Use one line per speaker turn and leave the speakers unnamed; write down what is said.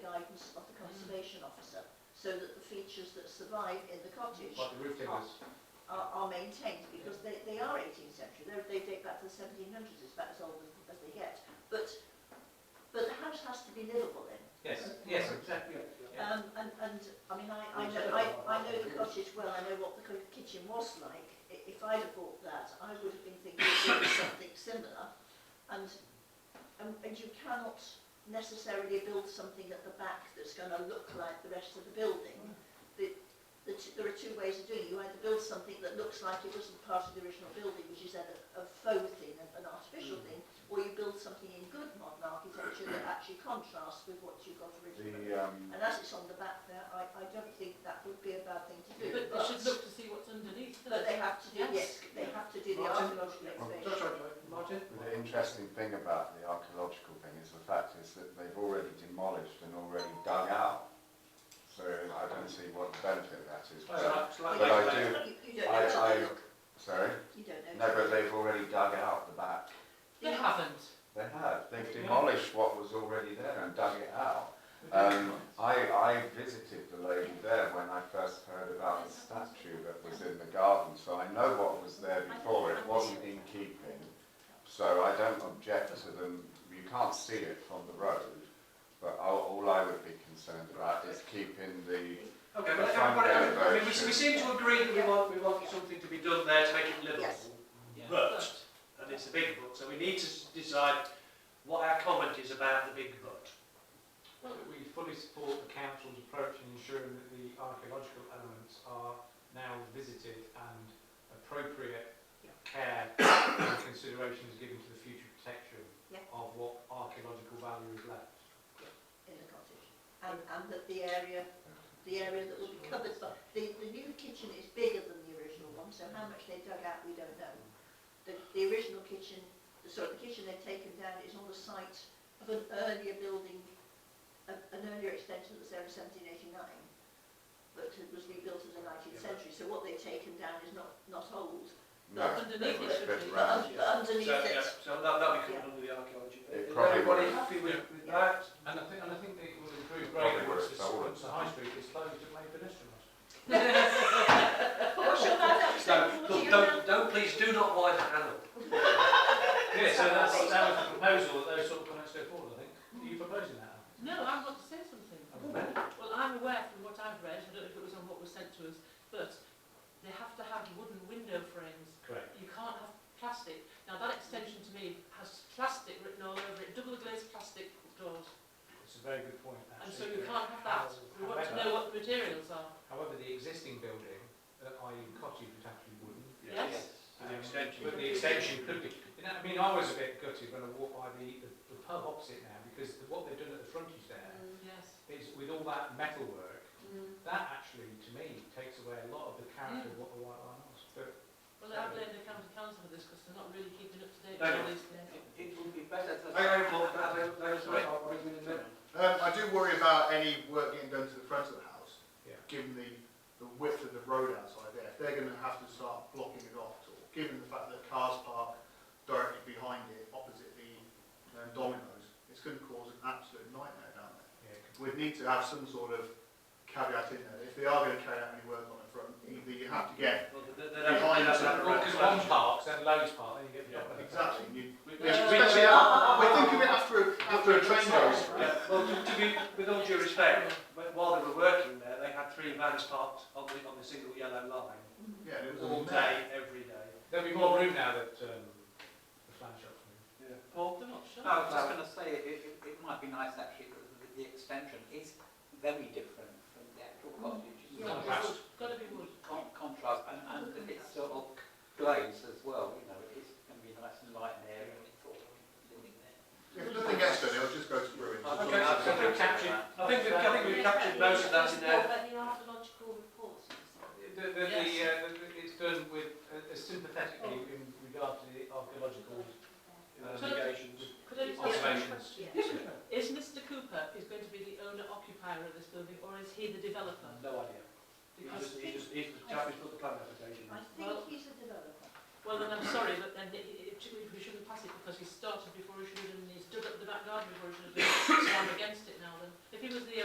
so that the features that survive in the cottage
Like the roof timbers.
are, are maintained because they, they are 18th century. They're, they date back to the 1700s. It's about as old as, as they get. But but the house has to be livable in.
Yes, yes, exactly. Yeah.
Um, and, and I mean, I, I know I, I know the cottage well. I know what the co- kitchen was like. I- If I'd have bought that, I would have been thinking of doing something similar. And, and and you cannot necessarily build something at the back that's going to look like the rest of the building. The, the t- there are two ways of doing it. You either build something that looks like it wasn't part of the original building, which is then a, a faux thing, an, an artificial
Mm.
thing, or you build something in good modern architecture that actually contrasts with what you got originally.
The, um,
And as it's on the back there, I, I don't think that would be a bad thing to do.
But they should look to see what's underneath.
but they have to do, yes,
Yes.
they have to do the
Martin?
archaeological excavation.
Josh, Martin?
the interesting thing about the archaeological thing is the fact is that they've already demolished and already dug out. So I don't see what the benefit of that is. But, But I do-
You, you don't know
I-
till
I-
they look.
sorry?
You don't know.
No, but they've already dug out the back.
They haven't.
They have. They've demolished what was already there and dug it out. Um, I, I visited the lady there when I first heard about the statue that was in the garden, so I know what was there before. It wasn't in keeping, so I don't object to them. You can't see it from the road, but all, all I would be concerned about is keeping the.
Okay, but everybody, I mean, we, we seem to agree that we want, we want something to be done there to make it
Yes.
livable. But, and it's a big but, so we need to s- decide what our comment is about the big but.
Well, we fully support the council's approach in ensuring that the archaeological elements are now visited and appropriate
Yeah.
care and consideration is given to the future protection
Yeah.
of what archaeological value is left.
in the cottage. And, and that the area, the area that will be covered, but the, the new kitchen is bigger than the original one, so how much they dug out, we don't know. The, the original kitchen, sorry, the kitchen they've taken down is on the site of an earlier building, a, an earlier extension that was there in seventeen eighty-nine, but it was rebuilt in the nineteenth
Yeah.
century, so what they've taken down is not, not old,
No, it
Underneath
was a
it should
bit
be.
but
round.
un-
yeah.
but
So,
underneath
yeah,
it,
so that, that'll be covered under the archaeology.
It
Is
probably
everybody
would.
happy with, with
Yeah.
that?
And I think, and I think that it would improve
Probably
greatly
works,
once the,
that would.
once the high street is closed and made pedestrian.
what's your man up to?
No,
What do
look,
you
don't, don't, please do not wind the panel.
Yeah, so that's, that was the proposal, that those sort of comments go forward, I think. Are you proposing that? Alan?
No, I want to say something. Well, I'm aware from what I've read, I don't know if it was on what was sent to us, but they have to have wooden window frames.
Correct.
You can't have plastic. Now, that extension to me has plastic written all over it, double glazed plastic doors.
It's a very good point, actually.
And so you can't have that. We want to
However-
know what the materials are.
However, the existing building, uh, i.e. cottage, would have to be wooden.
Yes.
Um,
An extension.
But the extension could be, you know, I mean, I was a bit gutted when I walked by the, the, the pub opposite now, because the- what they've done at the frontage there
Mm,
Yes.
is with all that metalwork,
mm.
that actually, to me, takes away a lot of the character of what the White Line was. But
Well, I blame the county council for this because they're not really keeping up to date
No,
with
no.
all these things.
It would be better to... I, I, thought that, I, I was right, I'll bring it in a minute.
Um, I do worry about any work getting done to the front of the house,
Yeah.
given the, the width of the road outside there. If they're going to have to start blocking it off at all, given the fact that cars park directly behind it, opposite the um, dominoes, it's going to cause an absolute nightmare down there.
yeah, it
We'd need to have some sort of caveat in there. If they are going to carry out any work on the front, either you have to get
Well, they- they- they'd have to
behind
do that
us
without a red
could-
and
well,
around.
because
flag.
one park's then Lowe's park, then you get the
Yeah,
other.
Exactly. You-
We- we- we-
Yeah, especially, I, I think of it after, a- after a train goes through.
Yeah, well, to, to be, with all due respect, wh- while they were working there, they had three vans parked on the, on the single yellow line,
Yeah, and it was
all day, every day.
There'll be more room now that, um, the flan shop's moved.
Yeah. Paul?
They're not sure.
I was just going to say, it, it, it might be nice actually that the, the extension is very different from the actual cottage.
Yeah,
It's
it's wood. Gotta be wood.
Con- contrast and, and that it's sort of glazed as well, you know, it's going to be nice and light in there and it's all living there.
If nothing gets done, it'll just go to ruin.
I
Okay, so
think
we've captured, I think we've, I think we've captured most of that in there.
The, the, the, uh, the, the- it's done with, uh, sympathetically in regard to the archaeological
Allegations.
Could I just ask a
observations.
question? Is Mr Cooper is going to be the owner occupier of this building or is he the developer?
No idea. He's
Because,
just, he's just, he's the chap who's put the plan application
I
in.
think
Well-
he's a developer.
well then I'm sorry, but then it, it, it- we shouldn't pass it because he started before he should have done, he's dug up the back garden before he should have done, it. so I'm against it now then. If he was the